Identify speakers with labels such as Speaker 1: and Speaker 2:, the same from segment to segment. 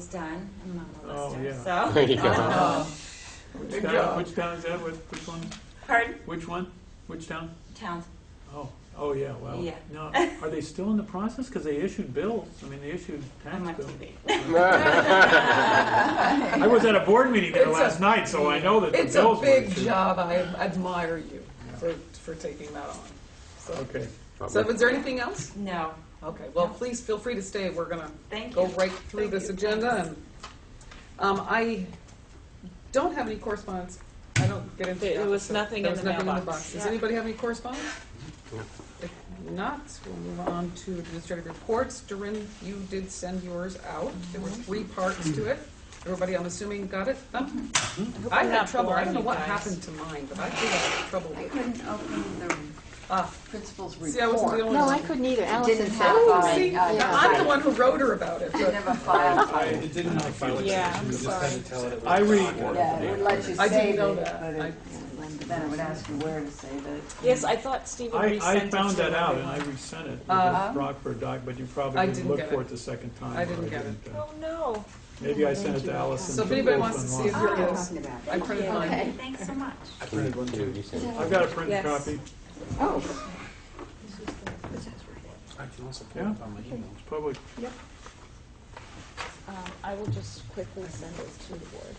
Speaker 1: is done. I'm not a
Speaker 2: Oh,
Speaker 1: lister,
Speaker 2: yeah.
Speaker 1: so.
Speaker 3: There you go.
Speaker 1: Um,
Speaker 2: Oh. Which
Speaker 4: Good
Speaker 2: town,
Speaker 4: job.
Speaker 2: which town is that, which, which one,
Speaker 1: Pardon?
Speaker 2: which one, which town?
Speaker 1: Towns.
Speaker 2: Oh, oh, yeah, well,
Speaker 1: Yeah.
Speaker 2: no, are they still in the process, because they issued bills, I mean, they issued
Speaker 1: I'm
Speaker 2: tax
Speaker 1: up
Speaker 2: bills.
Speaker 1: to date.
Speaker 2: I was at a board meeting there
Speaker 4: It's a-
Speaker 2: last night, so I know that the
Speaker 4: It's a
Speaker 2: bills were
Speaker 4: big
Speaker 2: issued.
Speaker 4: job. I admire you for, for taking that on. So,
Speaker 2: Okay,
Speaker 4: so was there anything else?
Speaker 1: No,
Speaker 4: Okay, well, please feel free to stay. We're gonna
Speaker 1: thank
Speaker 4: go
Speaker 1: you.
Speaker 4: right through
Speaker 1: Thank
Speaker 4: this
Speaker 1: you.
Speaker 4: agenda and, um, I don't have any correspondence. I don't get into.
Speaker 5: There
Speaker 4: that,
Speaker 5: was
Speaker 4: so
Speaker 5: nothing
Speaker 4: there
Speaker 5: in
Speaker 4: was
Speaker 5: the
Speaker 4: nothing in the
Speaker 5: mailbox.
Speaker 4: box. Does
Speaker 1: Yeah.
Speaker 4: anybody have any correspondence? If not, we'll move on to administrative reports. Doreen, you did send yours out. There were three parts to it. Everybody, I'm assuming, got it? Um, I
Speaker 5: I'm
Speaker 4: had
Speaker 5: Mm-hmm. not
Speaker 4: trouble. I
Speaker 5: boring
Speaker 4: don't know
Speaker 5: you
Speaker 4: what
Speaker 5: guys.
Speaker 4: happened to mine, but I think I had trouble
Speaker 6: I
Speaker 4: with it.
Speaker 6: couldn't open the
Speaker 4: Ah,
Speaker 6: principal's report.
Speaker 4: See, I wasn't the only
Speaker 7: No,
Speaker 4: one.
Speaker 7: I couldn't either.
Speaker 6: didn't
Speaker 7: Allison
Speaker 6: have
Speaker 7: said
Speaker 6: a-
Speaker 4: Oh,
Speaker 6: Fine.
Speaker 4: see,
Speaker 6: Uh, yeah.
Speaker 4: I'm the one who wrote her about it,
Speaker 6: It
Speaker 4: but
Speaker 6: never filed.
Speaker 8: I, it didn't have file
Speaker 5: Yeah,
Speaker 8: extension,
Speaker 5: I'm
Speaker 8: we just
Speaker 5: sorry.
Speaker 8: had to tell it it. was
Speaker 2: I read-
Speaker 8: gone.
Speaker 6: Yeah, it would let you
Speaker 4: I didn't
Speaker 6: save it,
Speaker 4: know that.
Speaker 6: but it- then it would ask you where to save it.
Speaker 5: Yes, I thought Stephen
Speaker 2: I,
Speaker 5: resent
Speaker 2: I
Speaker 5: it
Speaker 2: found
Speaker 5: to
Speaker 2: that out, and
Speaker 5: everyone.
Speaker 2: I resent it,
Speaker 4: Uh-huh.
Speaker 2: because Rockford died, but you
Speaker 4: I
Speaker 2: probably didn't
Speaker 4: didn't
Speaker 2: look
Speaker 4: get
Speaker 2: for
Speaker 4: it.
Speaker 2: it the second time.
Speaker 4: I
Speaker 2: or
Speaker 4: didn't get
Speaker 2: didn't, uh,
Speaker 5: Oh, no.
Speaker 2: Maybe I sent it to Allison.
Speaker 4: So if
Speaker 2: she
Speaker 4: anybody
Speaker 2: goes
Speaker 4: wants to see it,
Speaker 2: online.
Speaker 4: here it
Speaker 6: Oh,
Speaker 4: is.
Speaker 6: talking about
Speaker 4: I printed
Speaker 5: Yeah.
Speaker 4: mine.
Speaker 1: Okay, thanks so much.
Speaker 8: I printed one too.
Speaker 2: I've got a printed
Speaker 5: Yes.
Speaker 2: copy,
Speaker 6: Oh,
Speaker 8: I can also
Speaker 2: Yeah.
Speaker 8: pull it on my email.
Speaker 2: it's public.
Speaker 5: Um, I will just quickly send it to the board.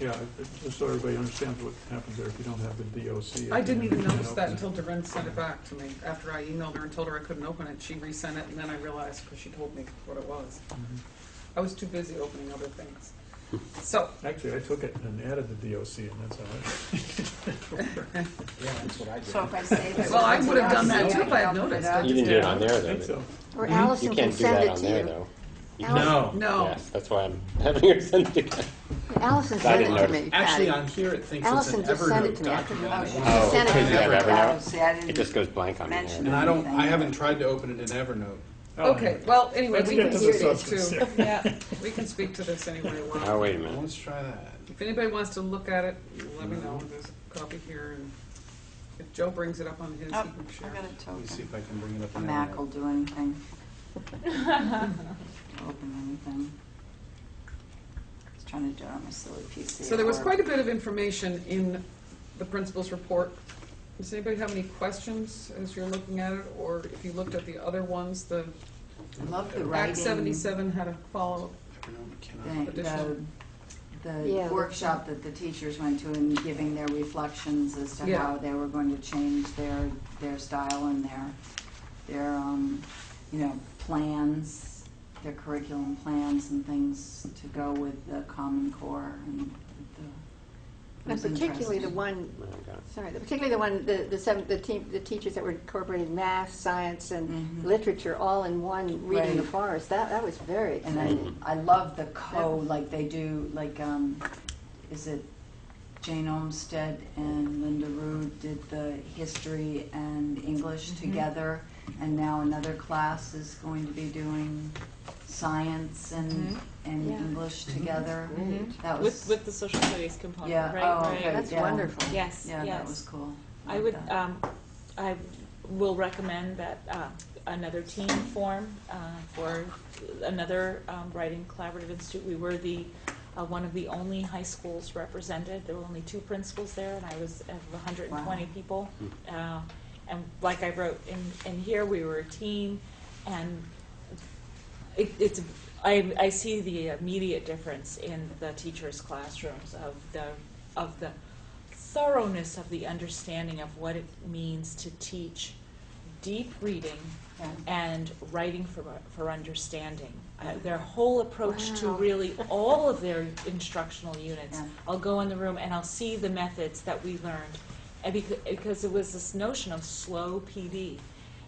Speaker 2: Yeah, it- it- just so everybody understands what happens there if you don't have the DOC.
Speaker 4: I didn't even
Speaker 2: You can't
Speaker 4: notice that
Speaker 2: open it.
Speaker 4: until Doreen sent it back to me. After I emailed her and told her I couldn't open it, she resent it, and then I realized, because she told me what it was. I was too busy opening other things. So,
Speaker 2: Actually, I took it and added the DOC, and that's how I,
Speaker 8: Yeah, that's what I
Speaker 6: so if
Speaker 8: did.
Speaker 6: I save it.
Speaker 4: well, I would have done that
Speaker 6: Yeah,
Speaker 4: too if I had
Speaker 6: open it
Speaker 4: noticed.
Speaker 6: up.
Speaker 4: I
Speaker 3: You
Speaker 4: just
Speaker 3: can do it
Speaker 4: didn't.
Speaker 3: on
Speaker 2: I
Speaker 3: there, though.
Speaker 2: think so.
Speaker 7: Or
Speaker 3: but You
Speaker 7: Allison can
Speaker 3: can't do that
Speaker 7: send it
Speaker 3: on
Speaker 7: to
Speaker 3: there,
Speaker 7: you.
Speaker 3: though. You can-
Speaker 8: No,
Speaker 4: No,
Speaker 3: Yes, that's why I'm having her send it again.
Speaker 7: Allison
Speaker 3: I
Speaker 7: sent
Speaker 3: didn't
Speaker 7: it to
Speaker 3: notice.
Speaker 7: me.
Speaker 8: actually,
Speaker 7: Patty.
Speaker 8: on here, it thinks it's an
Speaker 7: Allison just sent it
Speaker 8: Evernote
Speaker 7: to me. I couldn't.
Speaker 8: document.
Speaker 7: She
Speaker 3: Oh,
Speaker 7: sent
Speaker 3: because you
Speaker 7: it.
Speaker 3: have Evernote?
Speaker 6: See, I didn't.
Speaker 3: It just goes blank on
Speaker 6: Mention
Speaker 3: here.
Speaker 8: And I don't, I haven't tried to open it in Evernote.
Speaker 2: Oh,
Speaker 4: okay, well, anyway,
Speaker 2: Let's
Speaker 4: we
Speaker 2: get
Speaker 4: can
Speaker 2: to the
Speaker 4: hear this
Speaker 2: substance.
Speaker 4: too.
Speaker 2: here.
Speaker 5: Yeah.
Speaker 4: We can speak to this anyway. we want.
Speaker 3: Oh, wait a minute.
Speaker 8: Let's try that.
Speaker 4: If anybody wants to look at it, let me know. There's a copy here, and if Joe brings it up on his, he
Speaker 6: Oh,
Speaker 4: can
Speaker 6: I
Speaker 4: share.
Speaker 6: got a
Speaker 8: Let me see
Speaker 6: token.
Speaker 8: if I can bring it up.
Speaker 6: A
Speaker 8: in
Speaker 6: Mac will
Speaker 8: Evernote.
Speaker 6: do anything. Open anything. I was trying to do it on my silly PC.
Speaker 4: So there was quite a bit of information in the principal's report. Does anybody have any questions as you're looking at it, or if you looked at the other ones, the
Speaker 6: Love the writing.
Speaker 4: Act seventy-seven had a follow-up.
Speaker 8: Evernote cannot.
Speaker 6: the- the,
Speaker 7: Yeah.
Speaker 6: the workshop that the teachers went to and giving their reflections as to
Speaker 4: Yeah.
Speaker 6: how they were going to change their, their style and their, their, um, you know, plans, their curriculum plans and things to go with the Common Core and the. it was
Speaker 7: And particularly the
Speaker 6: interesting.
Speaker 7: one,
Speaker 3: Oh, God.
Speaker 7: sorry, the- particularly the one, the, the seven, the team, the teachers that were incorporating math, science, and
Speaker 6: Mhm.
Speaker 7: literature all in one, reading the
Speaker 6: Right.
Speaker 7: forest. That, that was very
Speaker 6: And
Speaker 7: exciting.
Speaker 6: I, I love the co, like they do, like, um, is it Jane Olmsted and Linda Rude did the history and English
Speaker 5: Mm-hmm.
Speaker 6: together. And now another class is going to be doing science and, and
Speaker 7: Yeah.
Speaker 6: English
Speaker 7: Mm-hmm.
Speaker 6: together. That
Speaker 5: Mm-hmm. With,
Speaker 6: was,
Speaker 5: with the social studies component,
Speaker 6: yeah,
Speaker 5: right,
Speaker 6: oh,
Speaker 5: right.
Speaker 6: okay,
Speaker 7: That's
Speaker 6: yeah.
Speaker 7: wonderful.
Speaker 5: Yes,
Speaker 6: Yeah, that
Speaker 5: yes.
Speaker 6: was cool.
Speaker 5: I
Speaker 6: Like
Speaker 5: would,
Speaker 6: that.
Speaker 5: um, I will recommend that, uh, another team form, uh, for another, um, writing collaborative institute. We were the, uh, one of the only high schools represented. There were only two principals there and I was of hundred and twenty
Speaker 6: Wow.
Speaker 5: people. Uh, and like I wrote in, in here, we were a team and it, it's, I, I see the immediate difference in the teachers' classrooms of the, of the thoroughness of the understanding of what it means to teach deep reading
Speaker 6: Yeah.
Speaker 5: and writing for, for understanding. Uh, their whole approach to really all of their instructional units.
Speaker 6: Yeah.
Speaker 5: I'll go in the room and I'll see the methods that we learned. And because, because it was this notion of slow PD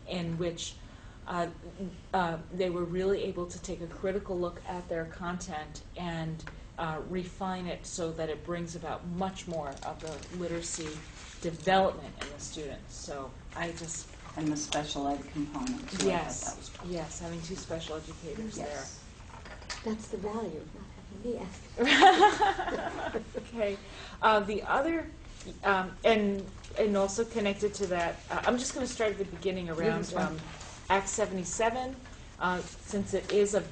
Speaker 5: in which uh, uh, they were really able to take a critical look at their content and uh, refine it so that it brings about much more of the literacy development in the students. So I just
Speaker 6: And the special ed component too. I thought that was
Speaker 5: Yes,
Speaker 6: cool.
Speaker 5: yes, having two special educators there.
Speaker 6: Yes.
Speaker 7: That's the value of not having me ask.
Speaker 5: Okay, uh, the other, um, and, and also connected to that, uh, I'm just gonna start at the beginning around,
Speaker 4: that's fine.
Speaker 5: um, Act seventy-seven, uh, since it is a